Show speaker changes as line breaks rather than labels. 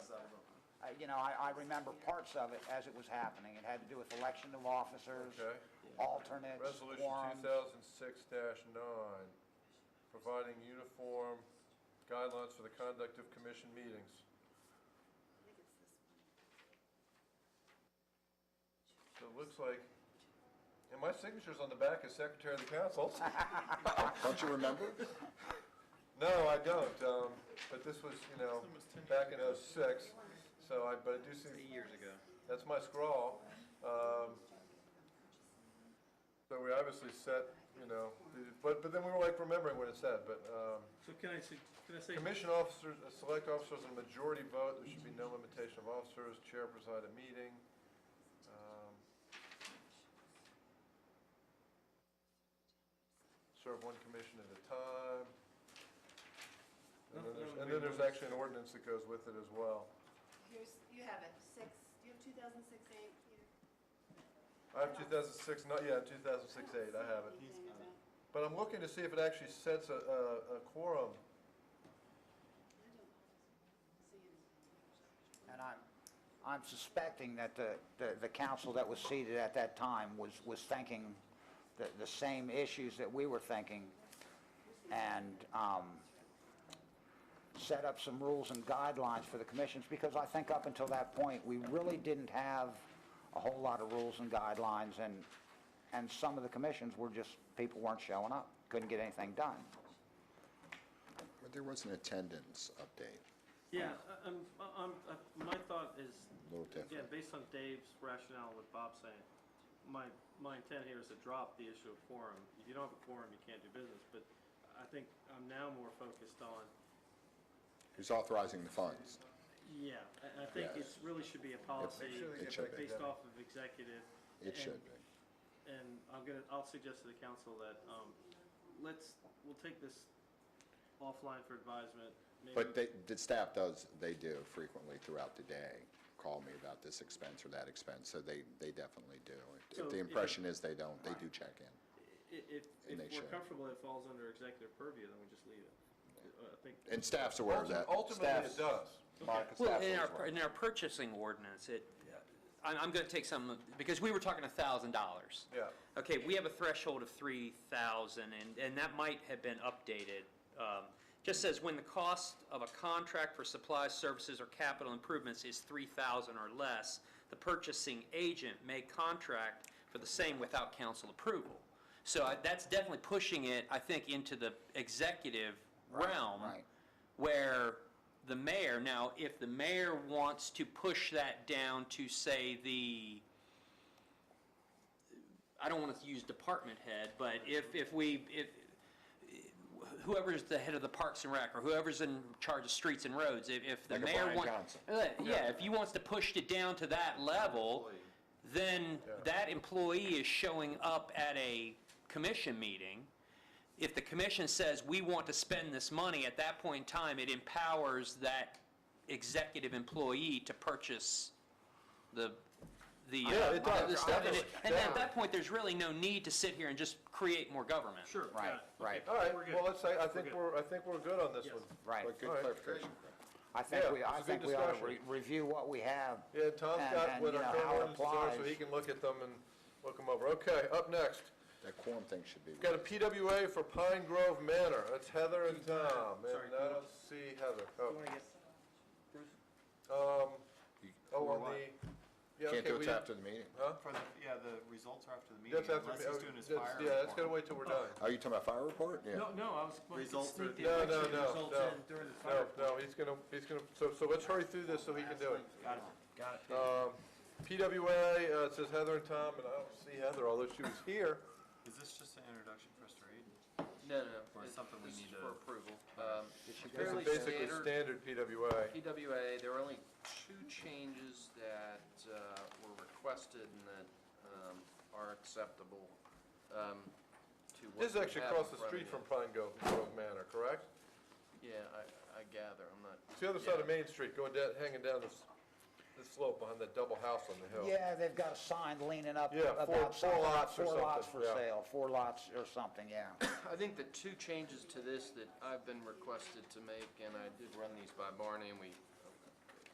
I, you know, I, I remember parts of it as it was happening. It had to do with election of officers,
Okay.
alternates,
Resolution two
quorums.
thousand six nine, providing uniform guidelines for the conduct of commission meetings.
I think it's this one.
So it looks like, and my signature's on the back as secretary of the council.
Don't you remember?
No, I don't, um, but this was, you know, back in oh-six, so I, but I do see. Years ago. That's my scrawl, um. So we obviously set, you know, the- but, but then we were like remembering what it said, but, um,
So can I, su- can I say,
commission officers, uh, select officers on a majority vote, there should be no limitation of officers, chair preside a meeting. um, Serve one commission at a time. And then there's, and then there's actually an ordinance that goes with it as well.
Here's, you have it, six, do you have two thousand six eight here?
I have two thousand six, not, yeah, two thousand six eight, I have it. But I'm looking to see if it actually sets a, a, a quorum.
And I'm, I'm suspecting that the, the, the council that was seated at that time was, was thinking the, the same issues that we were thinking and, um, set up some rules and guidelines for the commissions, because I think up until that point, we really didn't have a whole lot of rules and guidelines, and, and some of the commissions were just, people weren't showing up, couldn't get anything done.
But there was an attendance update.
yeah, uh, um, I- I'm, I'm, I- my thought is,
No
again,
different.
based on Dave's rationale, what Bob's saying, my, my intent here is to drop the issue of quorum. If you don't have a quorum, you can't do business, but I think I'm now more focused on,
Who's authorizing the funds?
yeah, I, I think it really should be a
Make
policy
sure they
It
get
should
back to
be.
based
them.
off of executive.
It should
and-
be.
And I'm gonna, I'll suggest to the council that, um, let's, we'll take this offline for advisement. Maybe-
But they, the staff does, they do frequently throughout the day, call me about this expense or that expense, so they, they definitely do.
So
If the
if-
impression is they don't, they do check
I-
in.
If,
And they
if we're
should.
comfortable, it falls under executive purview, then we just leave it. Uh, I think,
And staff's aware of that.
Ultimately, it
Staff's-
does.
Mark,
Well,
staff's
in
always
our,
aware.
in our purchasing ordinance, it, I'm, I'm gonna take some, of- because we were talking a thousand dollars.
Yeah.
Okay, we have a threshold of three thousand, and, and that might have been updated. Um, Just says when the cost of a contract for supplies, services, or capital improvements is three thousand or less, the purchasing agent may contract for the same without council approval. So I- that's definitely pushing it, I think, into the executive realm
right.
where the mayor, now, if the mayor wants to push that down to, say, the, I don't want to use department head, but if, if we, if, whoever's the head of the Parks and Rec, or whoever's in charge of streets and roads, if, if the
Like a
mayor
Brian
wants.
Johnson.
Yeah, if he wants to push it down to that level, then that employee is showing up at a commission meeting. If the commission says, we want to spend this money, at that point in time, it empowers that executive employee to purchase the, the. uh,
Yeah, it does,
the stuff. And
definitely.
it- And then at that point, there's really no need to sit here and just create more government.
sure.
Right,
got it.
right.
All right,
We're good.
well, let's say, I think
good.
we're, I think we're good on this
Yes.
one.
Right.
But
All
good
right.
clarification.
I think
Yeah,
we, I
it's a good
think we ought to re-
discussion.
review what we have.
Yeah, Tom's
and-
got
and,
what
you
our
know, how it
current ordinances are, so
applies.
he can look at them and look them over. Okay, up next,
That quorum thing should be.
we've got a PWA for Pine Grove Manor. That's Heather and Tom,
Sorry,
and
do
I
you-
don't see Heather.
You
Oh,
wanna get- Bruce?
um,
You
oh, on the, yeah, okay.
Can't do
we
it
didn't-
after the meeting.
For the, yeah, the results are after the meeting,
That's after,
unless he's
oh,
doing his
that's-
fire.
yeah, that's gotta
report.
wait till we're done.
Are you talking about fire report? Yeah.
No, no, I was going to
Results
sneak
are-
No,
the
no,
election
no, no.
results in during the fire.
No, no, he's gonna, he's gonna, so, so let's hurry through this so he can do it.
Got it, got it.
Um, PWA, uh, it says Heather and Tom, and I don't see Heather, although she was here.
Is this just an introduction for us to read?
No, no, no.
Or
This-
something we
this
need
is
to-
For approval. Um,
This is
fairly
basically standard
standard
PWA.
PWA, there were only two changes that uh, were requested and that um, are acceptable um, to what.
This is
we
actually
have
across the
in front of
street
you.
from Pine Grove Grove Manor, correct?
Yeah, I, I gather, I'm not.
It's the other side of Main Street, going down, hanging down this, this slope behind that double house on the hill.
Yeah, they've got a sign leaning up
Yeah, four- four
about something,
lots or
four lots for
something, yeah.
sale, four lots or something, yeah.
I think the two changes to this that I've been requested to make, and I did run these by Barney, and we